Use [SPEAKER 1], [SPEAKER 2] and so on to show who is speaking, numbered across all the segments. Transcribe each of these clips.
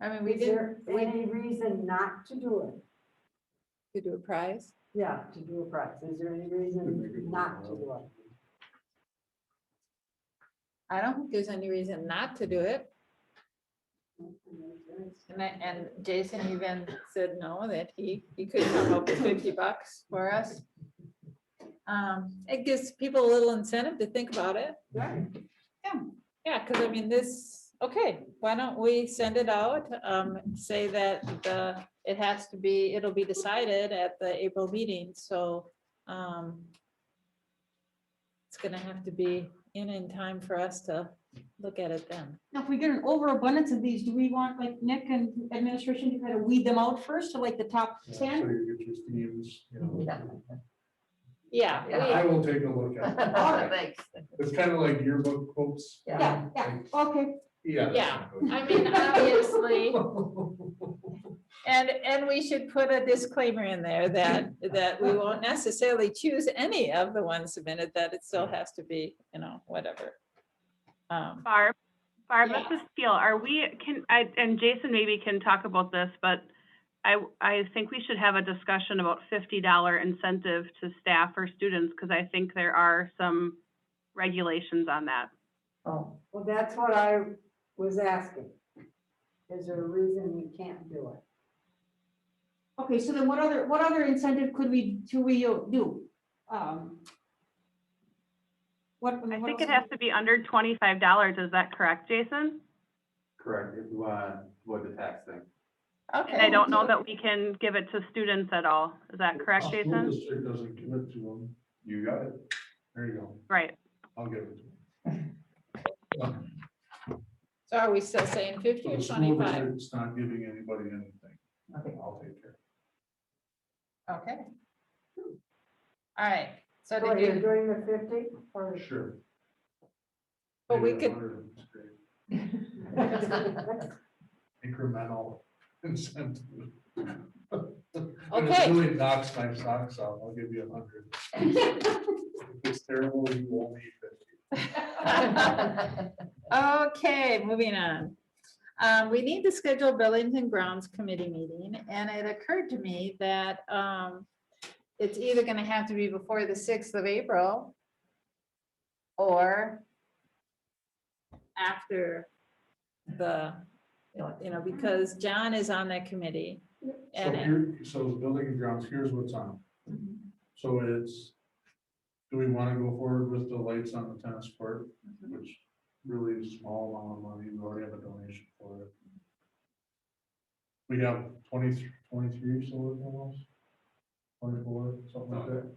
[SPEAKER 1] I mean, we
[SPEAKER 2] Is
[SPEAKER 1] did
[SPEAKER 2] there any reason not to do it?
[SPEAKER 1] to do a prize.
[SPEAKER 2] Yeah, to do a price. Is there any reason not to do it?
[SPEAKER 1] I don't think there's any reason not to do it. And I, and Jason even said no, that he, he could come up with fifty bucks for us. Um, it gives people a little incentive to think about it.
[SPEAKER 2] Right.
[SPEAKER 1] Yeah, because I mean, this, okay, why don't we send it out, um, say that the, it has to be, it'll be decided at the April meeting, so, um, it's gonna have to be in in time for us to look at it then.
[SPEAKER 3] Now, if we get an overabundance of these, do we want like Nick and administration to kind of weed them out first to like the top
[SPEAKER 4] Yeah, So
[SPEAKER 3] ten?
[SPEAKER 4] you get your themes, you know.
[SPEAKER 1] Yeah,
[SPEAKER 4] Yeah, I
[SPEAKER 1] we-
[SPEAKER 4] will take a look at it.
[SPEAKER 3] Alright.
[SPEAKER 4] It's kind of like yearbook quotes.
[SPEAKER 3] Yeah, yeah, okay.
[SPEAKER 4] Yeah. that's
[SPEAKER 1] Yeah.
[SPEAKER 4] a good-
[SPEAKER 1] I mean, obviously, and, and we should put a disclaimer in there that, that we won't necessarily choose any of the ones submitted, that it still has to be, you know, whatever. Um,
[SPEAKER 5] Barb, Barb,
[SPEAKER 1] Yeah.
[SPEAKER 5] this is Teal. Are we, can, I, and Jason maybe can talk about this, but I, I think we should have a discussion about fifty dollar incentive to staff or students, because I think there are some regulations on that.
[SPEAKER 2] Oh, well, that's what I was asking. Is there a reason we can't do it?
[SPEAKER 3] Okay, so then what other, what other incentive could we, do we uh, do? Um, What?
[SPEAKER 5] I
[SPEAKER 3] what
[SPEAKER 5] think
[SPEAKER 3] else?
[SPEAKER 5] it has to be under twenty-five dollars. Is that correct, Jason?
[SPEAKER 6] Correct, if you want, avoid the tax thing.
[SPEAKER 5] And I
[SPEAKER 1] Okay,
[SPEAKER 5] don't know that we can give it to students at all. Is that correct,
[SPEAKER 4] School
[SPEAKER 5] Jason?
[SPEAKER 4] Oh, district doesn't give it to them. You got it. There you go.
[SPEAKER 5] Right.
[SPEAKER 4] I'll give it to them.
[SPEAKER 1] so are we still saying fifty
[SPEAKER 4] So
[SPEAKER 1] or
[SPEAKER 4] the school
[SPEAKER 1] twenty-five?
[SPEAKER 4] district's not giving anybody anything.
[SPEAKER 2] Okay.
[SPEAKER 4] I'll take care.
[SPEAKER 1] Okay. All right, so
[SPEAKER 2] So
[SPEAKER 1] did
[SPEAKER 2] you're
[SPEAKER 1] you,
[SPEAKER 2] doing the fifty or?
[SPEAKER 4] Sure.
[SPEAKER 1] But we
[SPEAKER 4] Maybe a
[SPEAKER 1] could-
[SPEAKER 4] hundred is great.
[SPEAKER 2] That's-
[SPEAKER 4] Incremental incentive. And
[SPEAKER 1] Okay.
[SPEAKER 4] It really knocks my socks off. I'll give you a hundred. If It's terrible, you won't need fifty.
[SPEAKER 1] okay, moving on. Um, we need to schedule Buildings and Grounds Committee meeting, and it occurred to me that, um, it's either gonna have to be before the sixth of April or after the, you know, because John is on that committee.
[SPEAKER 4] So
[SPEAKER 1] and- Mm-hmm.
[SPEAKER 4] here, so the building and grounds, here's what's on. So it's, do we want to go forward with the lights on the tennis court,
[SPEAKER 1] Mm-hmm.
[SPEAKER 4] which really is small amount of money, we already have a donation for it. We have 23 23 solar panels, twenty-four, something like that,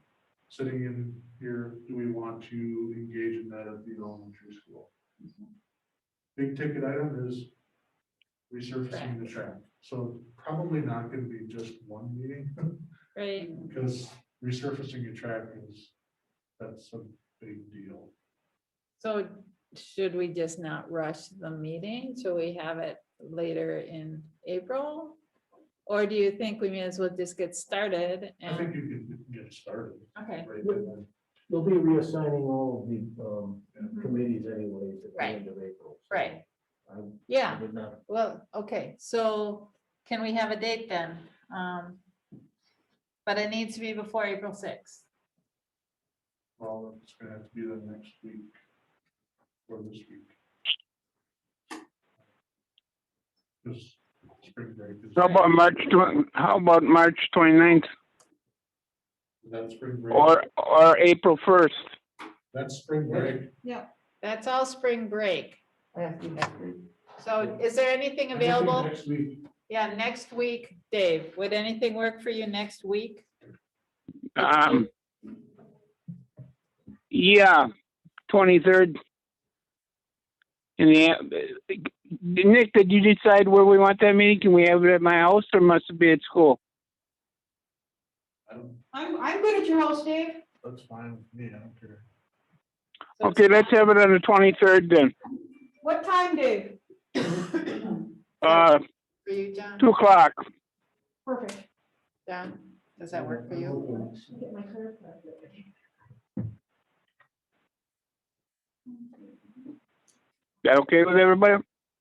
[SPEAKER 4] sitting in here, do we want to engage in that at the elementary school? Big ticket item is resurfacing the track, so probably not gonna be just one meeting.
[SPEAKER 1] Right,
[SPEAKER 4] Because resurfacing a track is, that's a big deal.
[SPEAKER 1] so should we just not rush the meeting till we have it later in April? Or do you think we may as well just get started
[SPEAKER 4] I think
[SPEAKER 1] and,
[SPEAKER 4] you can get started
[SPEAKER 1] okay,
[SPEAKER 4] right then.
[SPEAKER 7] They'll be reassigning all of the um,
[SPEAKER 1] Mhm.
[SPEAKER 7] committees anyways at the
[SPEAKER 1] Right.
[SPEAKER 7] end of April. so
[SPEAKER 1] right,
[SPEAKER 7] I-
[SPEAKER 1] yeah.
[SPEAKER 7] I would not,
[SPEAKER 1] Well, okay, so can we have a date then? Um, But it needs to be before April sixth.
[SPEAKER 4] Well, it's gonna have to be the next week or this week. Because spring break is.
[SPEAKER 8] How about March twen, how about March twenty-ninth
[SPEAKER 4] That's spring break.
[SPEAKER 8] or, or April first?
[SPEAKER 4] That's spring break.
[SPEAKER 1] That's all spring break. So is there anything
[SPEAKER 4] I think
[SPEAKER 1] available?
[SPEAKER 4] Next week.
[SPEAKER 1] Yeah, next week, Dave, would anything work for you next week?
[SPEAKER 8] Um, yeah, twenty-third. In the, a- Nick, did you decide where we want that meeting? Can we have it at my house or must it be at school?
[SPEAKER 4] I don't-
[SPEAKER 3] I'm, I'm good at your house, Dave.
[SPEAKER 4] That's fine, with me. I don't care.
[SPEAKER 1] So
[SPEAKER 8] Okay, let's have it on the twenty-third then,
[SPEAKER 3] What time, Dave?
[SPEAKER 8] uh,
[SPEAKER 1] For you, John,
[SPEAKER 8] two o'clock.
[SPEAKER 3] Perfect.
[SPEAKER 1] John, does that work for you?
[SPEAKER 3] Get my hair cut.
[SPEAKER 8] That okay with everybody?